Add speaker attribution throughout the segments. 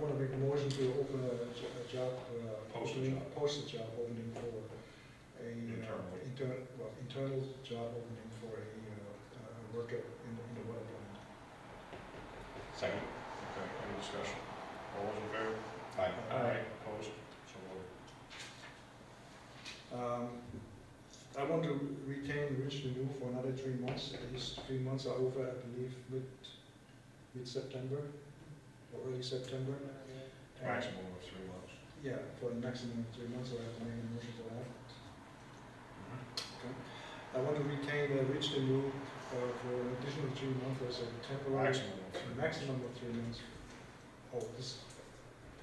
Speaker 1: want to make a motion to open a j- a job, uh,
Speaker 2: Post a
Speaker 1: opening-
Speaker 2: job.
Speaker 1: Post a job opening for a. uh,
Speaker 2: Internally.
Speaker 1: Intern, well, internal job opening for a, uh, a worker in, in the well plant.
Speaker 3: Second.
Speaker 2: Okay, any discussion? All those in favor?
Speaker 3: Aye.
Speaker 1: Aye.
Speaker 2: Opposed? So voted.
Speaker 1: Um, I want to retain Rich Renew for another three months. His three months are over, I believe, mid, mid-September or early September. And-
Speaker 2: Maximum of three months.
Speaker 1: Yeah, for the maximum of three months, I'll have to make a motion for that. I want to retain uh, Rich Renew uh, for an additional three months as a temporary,
Speaker 2: Maximum of three months.
Speaker 1: Mm-hmm. maximum of three months. Oh, this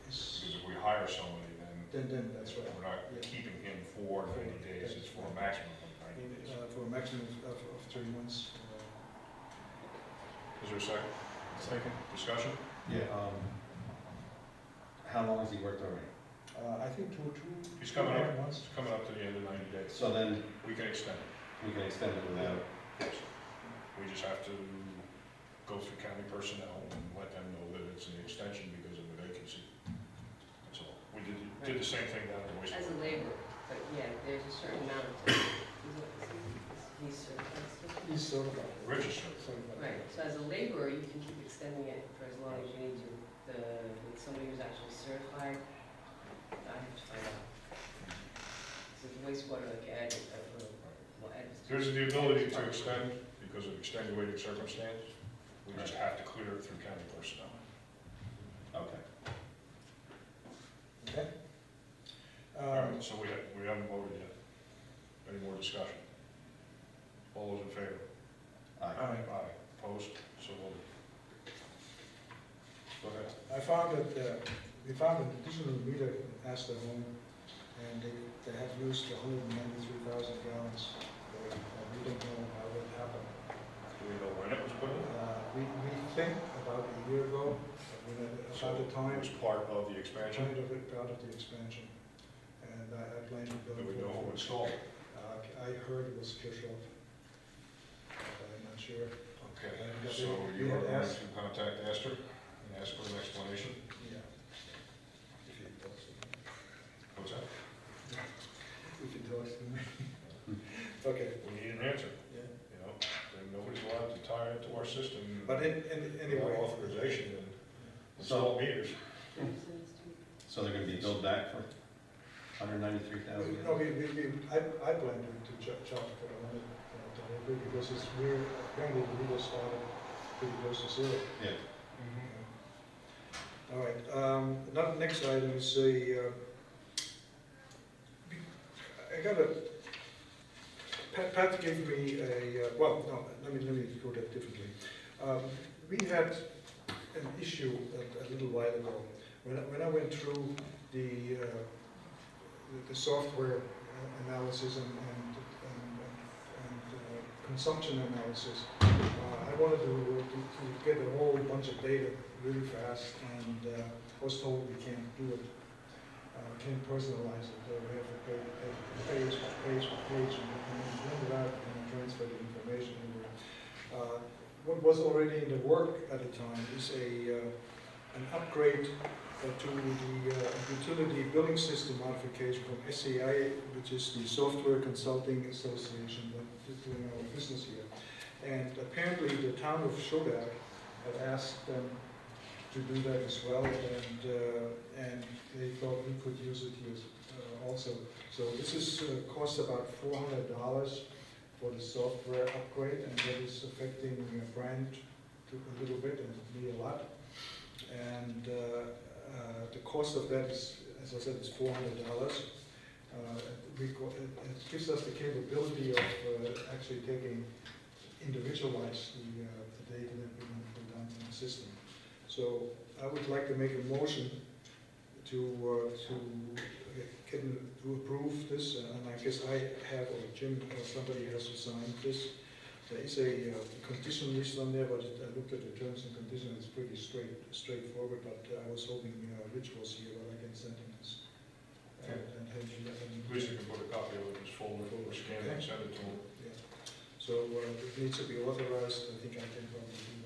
Speaker 1: is,
Speaker 2: Because if we hire somebody, then
Speaker 1: then, then, that's right.
Speaker 2: we're not keeping him for ninety days, it's for a maximum of ninety days.
Speaker 1: Uh, For a maximum of, of three months. uh,
Speaker 2: Is there a second? Second. Discussion?
Speaker 3: Yeah, um, how long has he worked already?
Speaker 1: Uh, I think two, two.
Speaker 2: He's coming up.
Speaker 1: two months.
Speaker 2: It's coming up to the end of ninety days.
Speaker 3: So then
Speaker 2: We can extend it.
Speaker 3: we can extend it without,
Speaker 2: Yes. We just have to go through county personnel and let them know that it's an extension because of the vacancy. That's all. We did, did the same thing down at the
Speaker 4: As a
Speaker 2: wastewater.
Speaker 4: laborer, but yeah, there's a certain amount of time. He's certified.
Speaker 1: He's certified.
Speaker 2: Registered.
Speaker 1: Certified.
Speaker 4: Right, so as a laborer, you can keep extending it for as long as you need to, the, with somebody who's actually certified. I have to find out. This is wastewater, like Ed, uh, well, Ed was-
Speaker 2: There's the ability to extend because of extenuating circumstance. We just have to clear it through county personnel.
Speaker 3: okay.
Speaker 1: Okay.
Speaker 2: All
Speaker 1: Um,
Speaker 2: right, so we haven't, we haven't voted yet. Any more discussion? All those in favor?
Speaker 3: Aye.
Speaker 1: Aye.
Speaker 2: Aye. Opposed? So voted. Go ahead.
Speaker 1: I found that, uh, we found an additional meter in Astor Home, and they, they have used hundred and ninety-three thousand gallons. Uh, We don't know how that happened.
Speaker 2: Do we know when it was put in?
Speaker 1: Uh, We, we think about a year ago, uh, when, it- about the
Speaker 2: It
Speaker 1: time,
Speaker 2: was part of the
Speaker 1: kind
Speaker 2: expansion.
Speaker 1: of it, part of the expansion, and I I blame the
Speaker 2: Do
Speaker 1: bill
Speaker 2: we know who
Speaker 1: for it.
Speaker 2: installed it?
Speaker 1: Uh, I heard it was Kirchhoff, but I'm not sure.
Speaker 2: Okay,
Speaker 1: And they-
Speaker 2: so you
Speaker 1: they
Speaker 2: are
Speaker 1: had
Speaker 2: going
Speaker 1: asked-
Speaker 2: to contact Astor and ask for an explanation?
Speaker 1: Yeah. If he talks to me.
Speaker 2: What's that?
Speaker 1: If he talks to me. Okay,
Speaker 2: We need an answer,
Speaker 1: yeah.
Speaker 2: you know? Then nobody's allowed to tie into our system.
Speaker 1: But in, in, anyway.
Speaker 2: Without Authorization and
Speaker 3: So-
Speaker 2: install meters.
Speaker 3: So they're gonna be billed back for hundred ninety-three thousand?
Speaker 1: No, we, we, we- I, I blame him to Chuck, Chuck for the money, uh, to help him, because it's, we're, apparently the legal started pretty close to zero.
Speaker 3: Yeah,
Speaker 1: Mm-hmm. All right, um, another, next item is a, uh, I got a, Pat, Pat gave me a, uh, well, no, let me, let me go that differently. Um, we had an issue a, a little while ago, when I, when I went through the, uh, the- the software uh, analysis and, and, and, and uh, consumption analysis, uh, I wanted to, to to get a whole bunch of data really fast, and uh, I was told we can't do it, uh, can't personalize it, uh, we have to pay, pay- page, page, page, and and then print it out and then transfer the information over. Uh, What was already in the work at the time is a, uh, an upgrade uh, to the uh, utility billing system modification from SCI, which is the Software Consulting Association that is doing our business here. And apparently, the town of Shodak had asked them to do that as well, and, uh, and they thought we could use it here uh, also. So this is, uh, costs about four hundred dollars for the software upgrade, and that is affecting uh, Brian to- a little bit and me a lot. And uh, uh, the cost of that is, as I said, is four hundred dollars. Uh, It it gives us the capability of uh, actually taking individualize the, uh, the data that we want to put down in the system. So I would like to make a motion to, uh, to, get- to approve this, uh, and I guess I have, or Jim, or somebody has to sign this. There is a uh, condition list on there, but I looked at the terms and conditions, it's pretty straight, straightforward, but I was hoping uh, Rich was here, but I can send him this. And and have him-
Speaker 2: At least you can put a copy of it in this folder, or scan it, send it to them.
Speaker 1: yeah. So uh, it needs to be authorized, I think I can probably do